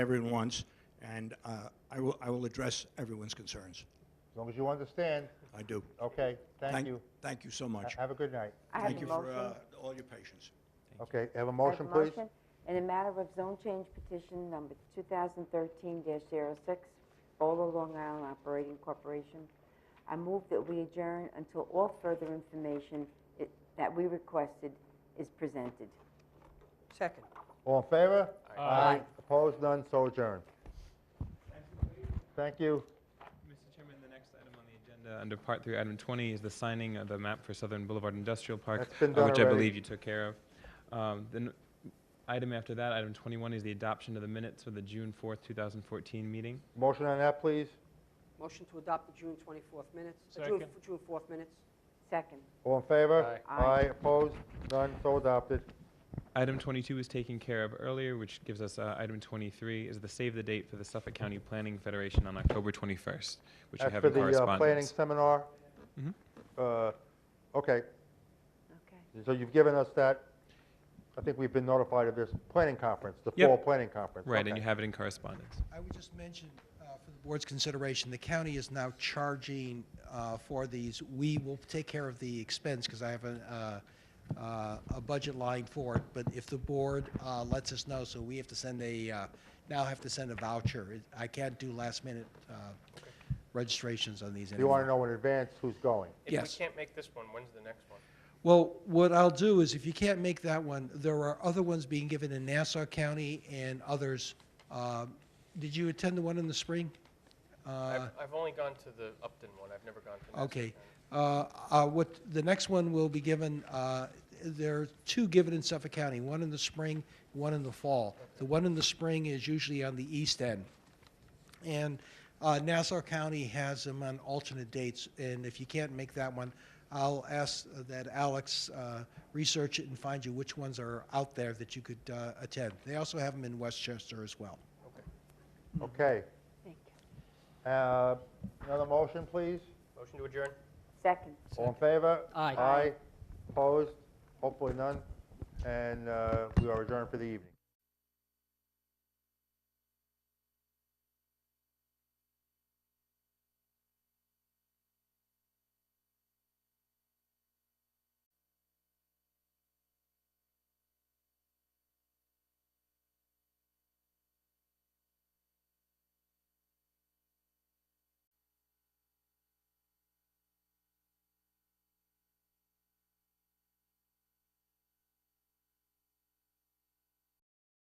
everyone wants, and uh, I will, I will address everyone's concerns. As long as you understand, I do. okay, thank you. Thank you so Ha- much. Have a good night. I have Thank a you for motion. uh, all your patience. Okay, have a I have a motion, please? motion In the matter of zone change petition number 2013-06, Bola Long Island Operating Corporation, I move that we adjourn until all further information i- that we requested is presented. Second. All in favor? Aye. Opposed, none, so adjourned. Thank you. Mr. Chairman, the next item on the agenda, under Part 3, Item 20, is the signing of the map for Southern Boulevard Industrial Park, That's been uh, done which I already. believe you took care of. Um, The n- item after that, Item 21, is the adoption of the minutes for the June 4th, 2014 meeting. Motion on that, please? Motion to adopt the June 24th minutes, uh, June- Second. June 4th minutes. Second. All in favor? Aye. Aye, opposed, none, so adopted. Item 22 was taken care of earlier, which gives us uh, Item 23, is the save the date for the Suffolk County Planning Federation on October 21st, which you That's have for in the uh, planning correspondence. seminar? Mhm. Uh, Okay, Okay. so you've given us that, I think we've been notified of this planning conference, the Yep. fall planning conference. Right, and Okay. you have it in correspondence. I would just mention, uh, for the board's consideration, the county is now charging uh, for these. We will take care of the expense, because I have a, uh, uh, a budget line for it, but if the board uh, lets us know, so we have to send a, uh, now have to send a voucher. It- I can't do last-minute uh, registrations on these You anymore. want to know in advance who's going? If we Yes. can't make this one, when's the next one? Well, what I'll do is, if you can't make that one, there are other ones being given in Nassau County and others. Um, Did you attend the one in the spring? Uh, I've, I've only gone to the Upton one, I've never gone to the next one. Okay. Uh, uh, What, the next one will be given, uh, there are two given in Suffolk County, one in the spring, one in the fall. The one in the spring is usually on the east end. And uh, Nassau County has them on alternate dates, and if you can't make that one, I'll ask that Alex uh, research it and find you which ones are out there that you could uh, attend. They also have them in Westchester as well. Okay. Mm-hmm. Thank you. Uh, Another motion, please? Motion to adjourn? Second. All in favor? Aye. Aye, opposed, hopefully none, and uh, we are adjourned for the evening.